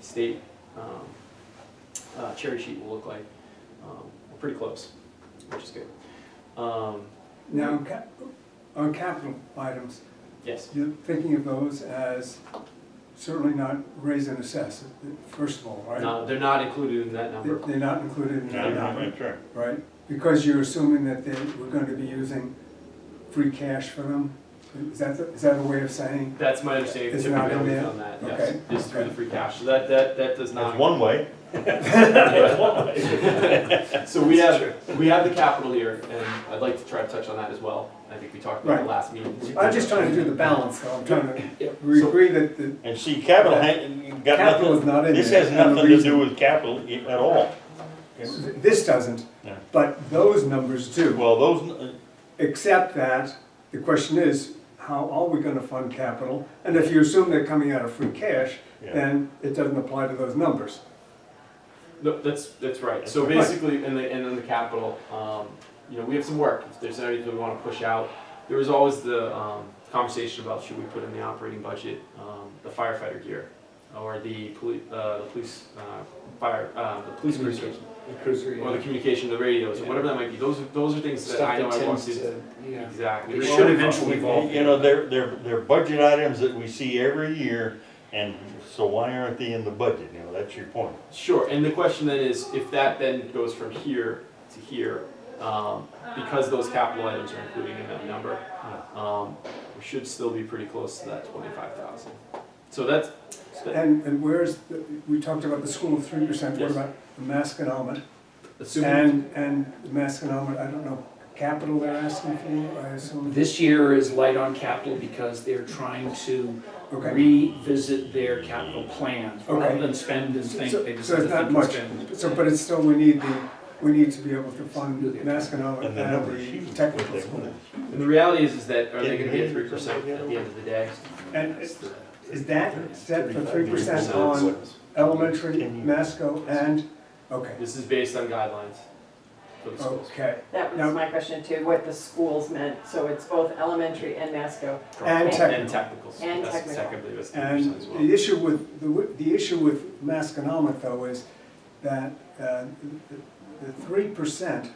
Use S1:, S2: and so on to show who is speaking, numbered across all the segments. S1: state um, uh, cherry sheet will look like. Um, We're pretty close, which is good. Um,
S2: Now, on cap- on capital items,
S1: Yes,
S2: you're thinking of those as certainly not raise and assess, first of all, right?
S1: no, they're not included in that number.
S2: They- They're not included in that number,
S3: Sure.
S2: right? Because you're assuming that they were going to be using free cash for them? Is that, the- is that a way of saying?
S1: That's my understanding
S2: It's not in
S1: typically
S2: there?
S1: on that, yes,
S2: Okay.
S1: is through the free cash. So that, that, that does not.
S3: That's one way.
S1: So we have, we have the capital here, and I'd like to try to touch on that as well. I think we talked about it
S2: Right.
S1: last meeting.
S2: I'm just trying to do the balance, though. I'm trying
S1: Yeah.
S2: to, we
S1: So-
S2: agree that the
S3: And see, capital, ha- got
S2: Capital
S3: nothing-
S2: is not in
S3: this
S2: there,
S3: has
S2: and the
S3: nothing to do
S2: reason-
S3: with capital i- at all.
S2: This doesn't,
S3: Yeah.
S2: but those numbers do,
S3: Well, those, uh, n-
S2: except that the question is, how are we gonna fund capital? And if you assume they're coming out of free cash,
S3: Yeah.
S2: then it doesn't apply to those numbers.
S1: No, that's, that's right. So
S2: That's right.
S1: basically, in the, and in the capital, um, you know, we have some work. If there's anything we wanna push out, there was always the, um, conversation about should we put in the operating budget, um, the firefighter gear? Or the poli- uh, the police, uh, fire, uh, the police cruiser, or the communication, the radios, or
S4: Yeah.
S1: whatever that might be. Those, are those are things that I know I want to. Exactly.
S4: It
S1: We
S4: should
S1: always-
S4: eventually evolve.
S3: you know, they're, they're, they're budget items that we see every year, and so why aren't they in the budget? You know, that's your point.
S1: Sure, and the question then is, if that then goes from here to here, um, because those capital items are included in that number, um, we should still be pretty close to that twenty-five thousand. So that's, that-
S2: And, and where's, the- we talked about the school of three percent, what
S1: Yes.
S2: about the Masconomet?
S1: assuming,
S2: And, and the Masconomet, I don't know, capital they're asking for, I assume?
S4: This year is light on capital because they're trying to
S2: Okay,
S4: revisit their capital plans, rather
S2: Okay.
S4: than spend and think,
S2: So-
S4: they just
S2: so
S4: have
S2: it's
S4: to
S2: not
S4: think and
S2: much.
S4: spend.
S2: so, but it's still, we need the, we need to be able to fund
S4: Do the-
S2: Masconomet
S3: And the numbers.
S2: and the technical school.
S1: and the reality is, is that, are they gonna be at three percent at the end of the day?
S2: And is is that set for three percent on elementary, Masco, and, okay,
S1: This is based on guidelines for the schools.
S2: okay.
S5: That
S2: Now-
S5: was my question too, what the schools meant, so it's both elementary and Masco.
S2: And
S1: And
S2: technical.
S1: technicals,
S5: And
S1: that's
S5: technical.
S1: technically, that's three
S2: And
S1: percent as well.
S2: the issue with, the, w- the issue with Masconomet though is that uh, the- the three percent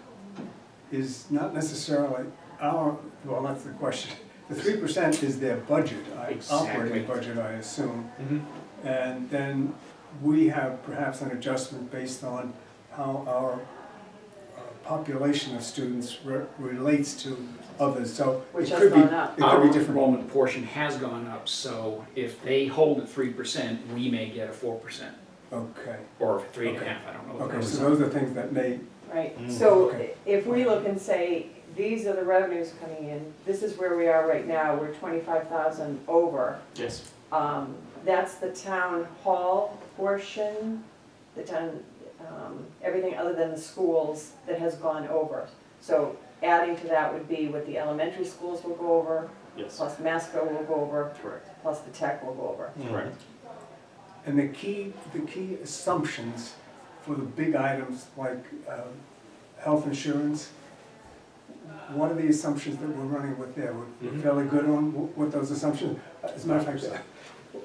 S2: is not necessarily our, well, that's the question. The three percent is their budget, I-
S4: Exactly.
S2: operating budget, I assume.
S1: Mhm.
S2: And then we have perhaps an adjustment based on how our uh, population of students re- relates to others, so. it
S5: Which has
S2: could be-
S5: gone up.
S2: It
S4: Our
S2: could be different.
S4: enrollment portion has gone up, so if they hold at three percent, we may get a four percent,
S2: Okay,
S4: or three and a
S2: Okay.
S4: half, I don't know. what
S2: okay,
S4: that
S2: so
S4: was.
S2: those are things that may,
S5: Right,
S3: Mm,
S5: so
S2: okay.
S5: if we look and say, these are the revenues coming in, this is where we are right now, we're twenty-five thousand over.
S1: Yes,
S5: Um, that's the town hall portion, the town, um, everything other than the schools that has gone over. So adding to that would be what the elementary schools will go over,
S1: yes,
S5: plus Masco will go over,
S1: correct,
S5: plus the tech will go over.
S1: correct.
S2: and the key, the key assumptions for the big items like um, health insurance, what are the assumptions that we're running with there? We're- We're
S1: Mhm.
S2: fairly good on wh- what those assumptions, as a matter of fact,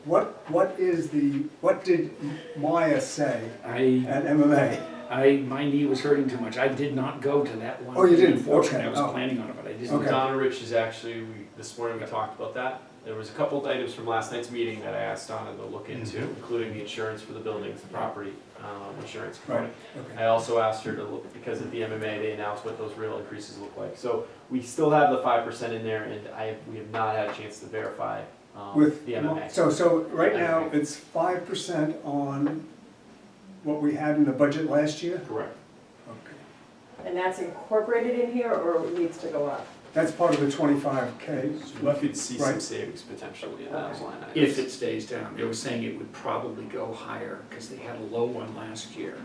S2: what, what is the, what did Maya say
S4: I,
S2: at MMA?
S4: I, my knee was hurting too much, I did not go to that one.
S2: Oh, you didn't?
S4: Unfortunately,
S2: Okay.
S4: I was
S2: Oh.
S4: planning on it, but I didn't.
S2: Okay.
S1: Donna Rich is actually, we- this morning we talked about that. There was a couple of items from last night's meeting that I asked Donna to look
S2: Mm-hmm.
S1: into, including the insurance for the buildings, the property um, insurance component.
S2: Right, okay.
S1: I also asked her to look, because at the MMA, they announced what those real increases look like. So we still have the five percent in there, and I, we have not had a chance to verify um,
S2: With,
S1: the MMA.
S2: so, so right now,
S1: MMA.
S2: it's five percent on what we had in the budget last year?
S1: Correct.
S2: Okay.
S5: And that's incorporated in here, or it needs to go up?
S2: That's part of the twenty-five K.
S1: We could see some
S2: Right.
S1: savings potentially in those line items.
S4: If it stays down, they were saying it would probably go higher, because they had a low one last year.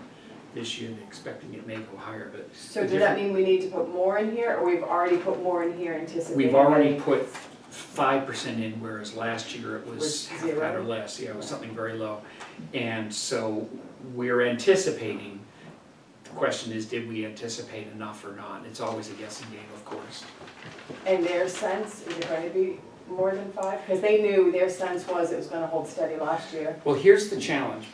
S4: This year, they're expecting it may go higher, but.
S5: So does that mean we need to put more in here, or we've already put more in here anticipating?
S4: We've already
S5: that-
S4: put five percent in, whereas last year it was
S5: Was
S4: half that or
S5: zero?
S4: less, yeah, it was something very low. And so we're anticipating, the question is, did we anticipate enough or not? It's always a guessing game, of course.
S5: And their sense, is it going to be more than five? Because they knew, their sense was it was going to hold steady last year.
S4: Well, here's the challenge,